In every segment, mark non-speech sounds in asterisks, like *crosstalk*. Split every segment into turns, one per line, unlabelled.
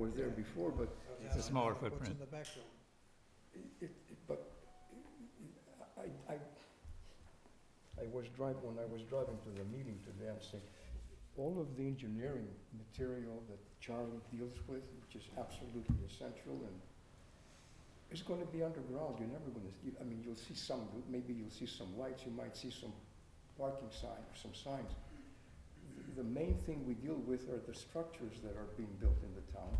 was there before, but
It's a smaller footprint.
What's in the back room?
it, it- but I, I, I was driving, when I was driving to the meeting today, I'm saying, all of the engineering material that Charlie deals with, which is absolutely essential and it's gonna be underground, you're never gonna, you- I mean, you'll see some, maybe you'll see some lights, you might see some parking sign, some signs. The- The main thing we deal with are the structures that are being built in the town.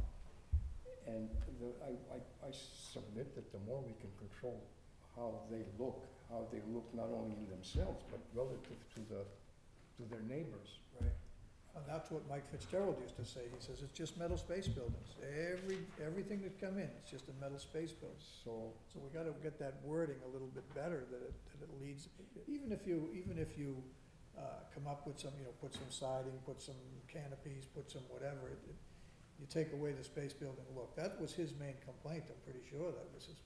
And the, I, I, I submit that the more we can control how they look, how they look not only in themselves, but relative to the, to their neighbors.
Right. And that's what Mike Fitzgerald used to say. He says, it's just metal space buildings. Every, everything that come in, it's just a metal space building.
So,
So we gotta get that wording a little bit better, that it, that it leads, even if you, even if you, uh, come up with some, you know, put some siding, put some canopies, put some whatever, it, it- you take away the space building look. That was his main complaint, I'm pretty sure that was his,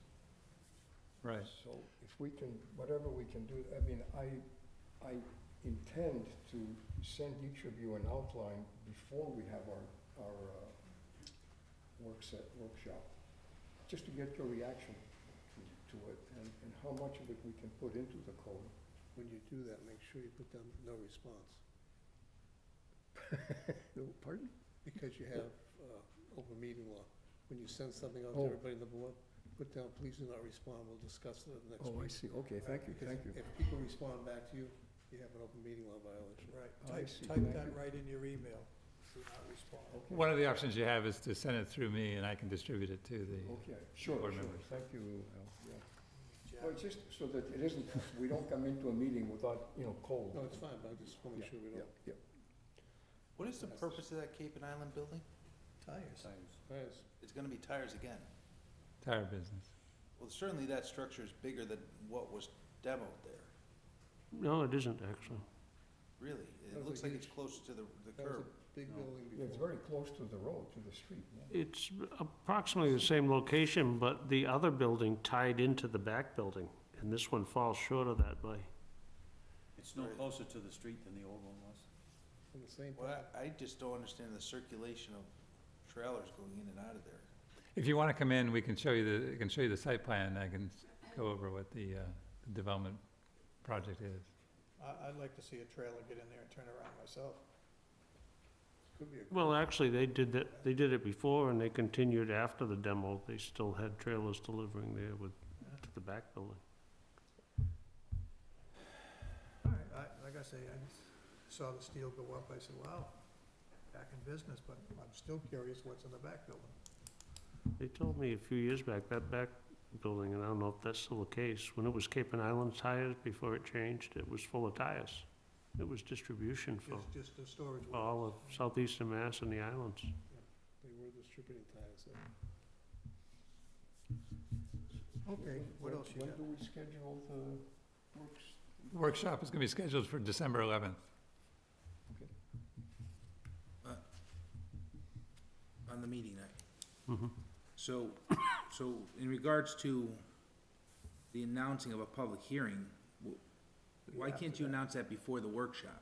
Right.
so if we can, whatever we can do, I mean, I, I intend to send each of you an outline before we have our, our, uh, work set, workshop, just to get your reaction to- to it and, and how much of it we can put into the code.
When you do that, make sure you put down no response,
No, Pardon?
because you have uh, open meeting law. When you send something out to
Oh.
everybody in the board, put down, please do not respond, we'll discuss it at the next
Oh, I
meeting.
see, okay, thank you,
Because
thank you.
If people respond back to you, you have an open meeting law violation.
right,
Oh, I
type,
see. Oh,
type
Thank
that
you.
right in your email, do not respond.
Okay.
One of the options you have is to send it through me and I can distribute it to the,
Okay, sure,
board
sure,
members.
thank you, Al, yeah.
Jack,
Well, just so that it isn't, we don't come into a meeting without, you know, cold.
No, it's fine, but I just want to make
Yeah,
sure we
Yeah,
don't.
yeah.
What is the purpose of that Cape and Island building?
Tires,
Yes,
It's gonna be tires again.
tire business.
Well, certainly that structure is bigger than what was demoed there,
No, it isn't, actually.
really.
That
It
was
looks
a
like it's
huge-
closer to the, the
that was
curb.
a big
No.
building
Yeah, it's
before.
very close to the road, to the street, yeah.
It's approximately the same location, but the other building tied into the back building, and this one falls short of that by,
It's no
Right.
closer to the street than the old one was.
On the same,
Well, I I just don't understand the circulation of trailers going in and out of there.
If you want to come in, we can show you the, I can show you the site plan. I can s- go over what the, uh, the development project is.
I, I'd like to see a trailer get in there and turn around myself.
could be a.
well, actually, they did that, they did it before and they continued after the demo. They still had trailers delivering there with, to the back building.
All right, I, like I say, I saw the steel go up, I said, wow, back in business, but I'm still curious what's in the back building.
They told me a few years back, that back building, and I don't know if that's still the case, when it was Cape and Island tires, before it changed, it was full of tires. It was distribution for
Just, just the storage.
for all of southeastern Mass and the islands.
They were distributing tires. there.
Okay,
When-
what
when-
else you
When
got?
do we schedule the works?
Workshop is going to be scheduled for December 11th.
On the meeting night.
Mm-hmm.
So, *coughs* so in regards to the announcing of a public hearing, why can't you announce that before the workshop?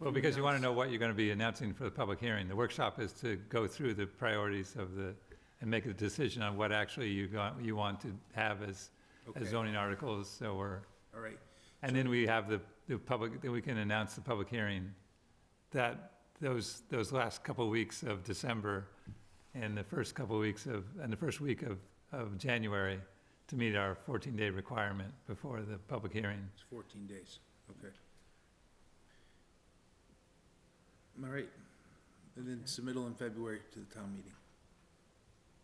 Well, because you want to know what you're going to be announcing for the public hearing. The workshop is to go through the priorities of the, and make a decision on what actually you got, you want to have as, as zoning articles, so we're,
All right,
and then we have the, the public, then we can announce the public hearing. That, those, those last couple of weeks of December and the first couple of weeks of, and the first week of, of January to meet our fourteen-day requirement before the public hearing.
It's fourteen days, okay. All right, and then submittal in February to the town meeting.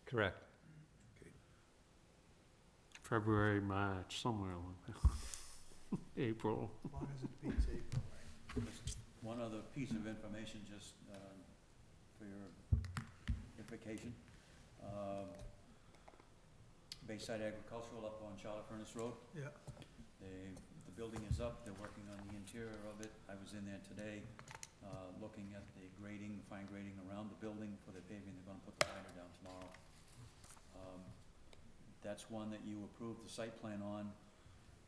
Correct.
February, March, somewhere along there. *laughs* April.
As long as it beats
*laughs*
April, right?
One other piece of information, just um, for your notification. Um, Bayside Agricultural up on Charlotte Furnace Road,
Yeah,
they, the building is up, they're working on the interior of it. I was in there today, uh, looking at the grading, fine grading around the building for the paving, they're gonna put the liner down tomorrow. Um, That's one that you approved the site plan on,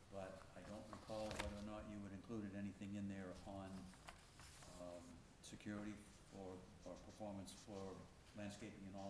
but I don't recall whether or not you had included anything in there on, um, security or, or performance for landscaping and all